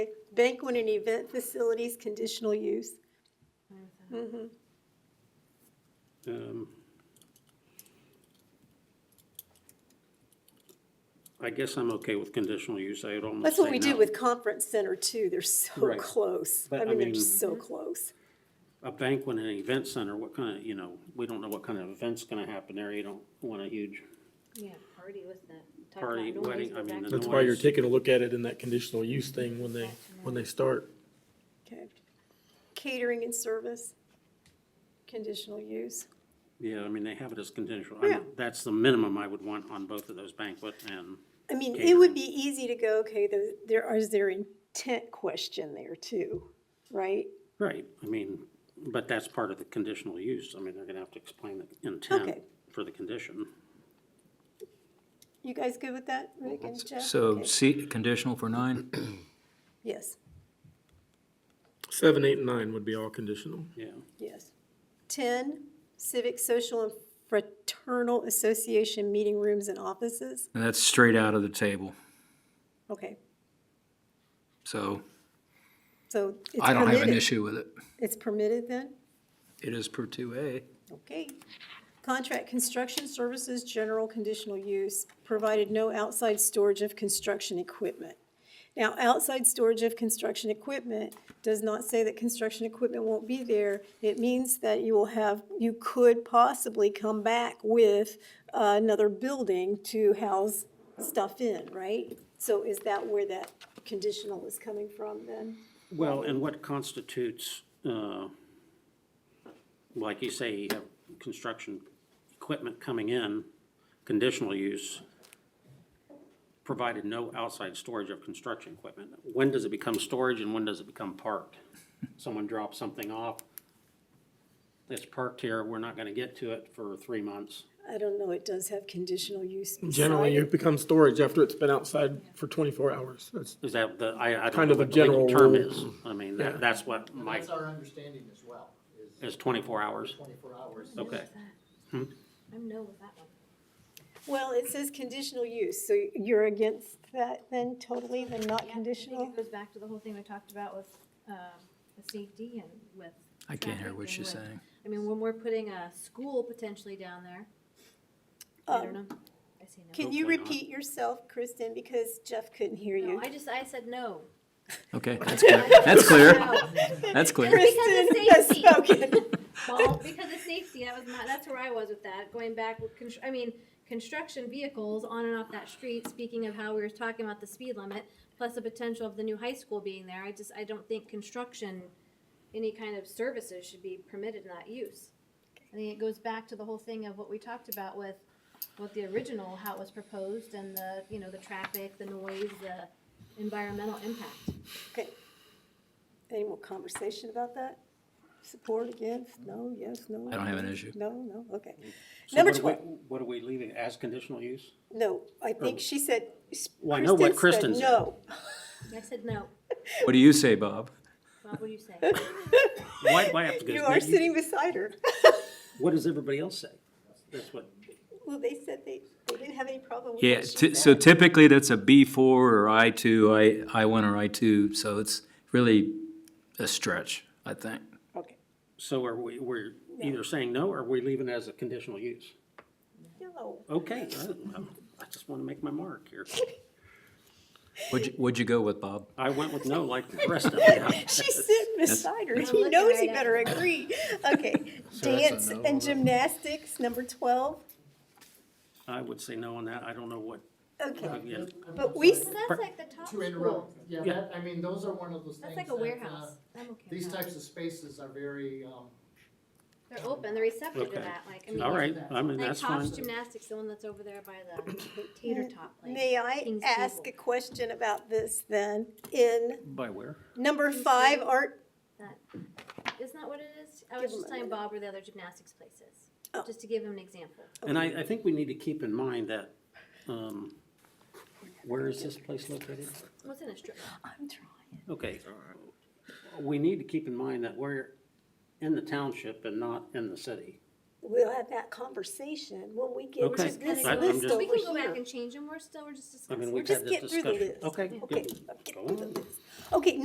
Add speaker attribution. Speaker 1: Banquet and event facilities conditional use. Mhm.
Speaker 2: Um, I guess I'm okay with conditional use. I would almost
Speaker 1: That's what
Speaker 2: say
Speaker 1: we do
Speaker 2: no.
Speaker 1: with conference center too. They're so
Speaker 2: Right.
Speaker 1: close.
Speaker 2: But,
Speaker 1: I
Speaker 2: I
Speaker 1: mean, they're
Speaker 2: mean-
Speaker 1: just so close.
Speaker 2: A banquet and an event center, what kind of, you know, we don't know what kind of event's gonna happen there. You don't want a huge
Speaker 3: Yeah, party with the. talk about
Speaker 2: Party,
Speaker 3: noise,
Speaker 2: wedding,
Speaker 3: go
Speaker 2: I mean,
Speaker 3: back
Speaker 2: the
Speaker 3: to-
Speaker 2: noise.
Speaker 4: That's why you're taking a look at it in that conditional use thing when they, when they start.
Speaker 1: Okay. Catering and service, conditional use.
Speaker 2: Yeah, I mean, they have it as conditional. I mean,
Speaker 1: Yeah.
Speaker 2: That's the minimum I would want on both of those banquet and,
Speaker 1: I mean, it would
Speaker 2: Catering.
Speaker 1: be easy to go, okay, there, there are- is there intent question there too, right?
Speaker 2: right, I mean, but that's part of the conditional use. I mean, they're gonna have to explain the intent
Speaker 1: Okay.
Speaker 2: for the condition.
Speaker 1: You guys good with that, Rick and Jeff?
Speaker 5: So
Speaker 1: Okay.
Speaker 5: C, conditional for nine?
Speaker 1: Yes,
Speaker 4: Seven, eight, and nine would be all conditional.
Speaker 2: Yeah,
Speaker 1: yes. Ten, civic, social, and fraternal association meeting rooms and offices.
Speaker 5: And that's straight out of the table.
Speaker 1: Okay,
Speaker 5: So
Speaker 1: so it's
Speaker 5: I don't have an
Speaker 1: permitted.
Speaker 5: issue with it.
Speaker 1: It's permitted then?
Speaker 5: It is per two A.
Speaker 1: Okay. Contract construction services, general conditional use, provided no outside storage of construction equipment. Now, outside storage of construction equipment does not say that construction equipment won't be there. It means that you will have, you could possibly come back with uh, another building to house stuff in, right? So is that where that conditional is coming from then?
Speaker 2: well, and what constitutes, uh, like you say, you have construction equipment coming in, conditional use, provided no outside storage of construction equipment. When does it become storage and when does it become parked? Someone drops something off, it's parked here, we're not gonna get to it for three months.
Speaker 1: I don't know, it does have conditional use beside
Speaker 4: Generally,
Speaker 1: it.
Speaker 4: it becomes storage after it's been outside for twenty-four hours. That's,
Speaker 2: Is that the, I, I don't
Speaker 4: Kind
Speaker 2: know
Speaker 4: of a
Speaker 2: what the legal
Speaker 4: general
Speaker 2: term
Speaker 4: rule.
Speaker 2: is. I mean,
Speaker 4: Yeah.
Speaker 2: that, that's what
Speaker 6: And
Speaker 2: my,
Speaker 6: That's our understanding as well, is
Speaker 2: is twenty-four hours.
Speaker 6: twenty-four hours. is-
Speaker 2: Okay. Hmm?
Speaker 3: I'm no with that one.
Speaker 1: Well, it says conditional use, so you're against that then totally, then not
Speaker 3: Yeah, I think
Speaker 1: conditional?
Speaker 3: It goes back to the whole thing we talked about with, um, the safety and with.
Speaker 5: I can't hear
Speaker 3: traffic
Speaker 5: what
Speaker 3: and
Speaker 5: she's
Speaker 3: with-
Speaker 5: saying.
Speaker 3: I mean, when we're putting a school potentially down there, I don't
Speaker 1: Um,
Speaker 3: know. I say no.
Speaker 1: Can you
Speaker 2: Hopefully not.
Speaker 1: repeat yourself, Kristen, because Jeff couldn't hear
Speaker 3: No,
Speaker 1: you?
Speaker 3: I just, I said no.
Speaker 5: Okay, that's clear. That's clear. That's clear.
Speaker 1: Kristen has
Speaker 3: Because it's
Speaker 1: spoken.
Speaker 3: Well, because of safety, that was my, that's where I was with that, going back with, constr- I mean, construction vehicles on and off that street, speaking of how we were talking about the speed limit, plus the potential of the new high school being there, I just, I don't think construction, any kind of services should be permitted in that use. I think it goes back to the whole thing of what we talked about with, what the original, how it was proposed, and the, you know, the traffic, the noise, the environmental impact.
Speaker 1: Okay. Any more conversation about that? Support against, no, yes, no?
Speaker 5: I don't have an issue.
Speaker 1: No, no, okay.
Speaker 2: So
Speaker 1: Number
Speaker 2: what are we-
Speaker 1: twelve,
Speaker 2: What are we leaving as conditional use?
Speaker 1: no, I think she said, s-
Speaker 2: Well, I know what
Speaker 1: Kristen
Speaker 2: Kristen
Speaker 1: said
Speaker 2: said.
Speaker 1: no.
Speaker 3: I said no,
Speaker 5: What do you say, Bob?
Speaker 3: Bob, what do you say?
Speaker 2: Why do I have to go?
Speaker 1: You are sitting beside her.
Speaker 2: What does everybody else say? That's what,
Speaker 1: Well, they said they, they didn't have any problem with
Speaker 5: Yeah,
Speaker 1: what she
Speaker 5: ty- so
Speaker 1: said.
Speaker 5: typically that's a B four or I two, I, I one or I two, so it's really a stretch, I think.
Speaker 1: Okay.
Speaker 2: so are we, we're either saying no, or we're leaving it as a conditional use?
Speaker 1: No,
Speaker 2: Okay, I- I just want to make my mark here.
Speaker 5: What'd you, what'd you go with, Bob?
Speaker 2: I went with no like the rest of them.
Speaker 1: she's sitting beside her.
Speaker 3: I'm
Speaker 1: He
Speaker 3: looking
Speaker 1: knows
Speaker 3: right
Speaker 1: he
Speaker 3: at
Speaker 1: better agree. Okay, dance and gymnastics, number twelve.
Speaker 2: I would say no on that, I don't know what,
Speaker 1: Okay,
Speaker 2: yeah,
Speaker 6: I'm
Speaker 1: but we,
Speaker 3: So
Speaker 1: s-
Speaker 3: that's like the top
Speaker 6: sorry, To
Speaker 3: school,
Speaker 6: interrupt, yeah,
Speaker 2: Yeah.
Speaker 6: that, I mean, those are one of those things.
Speaker 3: that's like a
Speaker 6: that, uh,
Speaker 3: warehouse, I'm okay with
Speaker 6: These
Speaker 3: that.
Speaker 6: types of spaces are very, um,
Speaker 3: They're open, they're receptive
Speaker 2: Okay.
Speaker 3: to that, like, I mean.
Speaker 2: all right, I mean,
Speaker 3: Like
Speaker 2: that's
Speaker 3: Tosh
Speaker 2: fine.
Speaker 3: Gymnastics, the one that's over there by the tater top place.
Speaker 1: may I
Speaker 3: King's
Speaker 1: ask a
Speaker 3: Table.
Speaker 1: question about this then? In
Speaker 2: By where?
Speaker 1: number five, art,
Speaker 3: Isn't that what it is? I
Speaker 1: Give
Speaker 3: was just
Speaker 1: them a
Speaker 3: telling
Speaker 1: minute.
Speaker 3: Bob where the other gymnastics places,
Speaker 1: Oh.
Speaker 3: just to give him an example.
Speaker 2: And I, I think we need to keep in mind that, um, where is this place located?
Speaker 3: What's in a strip? mall?
Speaker 1: I'm trying.
Speaker 2: Okay, we need to keep in mind that we're in the township and not in the city.
Speaker 1: we'll have that conversation when we get
Speaker 2: Okay.
Speaker 1: to this
Speaker 2: I- I'm
Speaker 1: list
Speaker 2: just-
Speaker 1: over
Speaker 3: We can go back
Speaker 1: here.
Speaker 3: and change them, we're still, we're just
Speaker 2: I
Speaker 3: discussing.
Speaker 2: mean,
Speaker 1: We're
Speaker 2: we've had
Speaker 1: just
Speaker 2: this
Speaker 1: getting through the
Speaker 2: discussion.
Speaker 1: list.
Speaker 2: Okay,
Speaker 1: Okay,
Speaker 2: good.
Speaker 1: I'm
Speaker 2: Go
Speaker 1: getting through
Speaker 2: on.
Speaker 1: the list. Okay,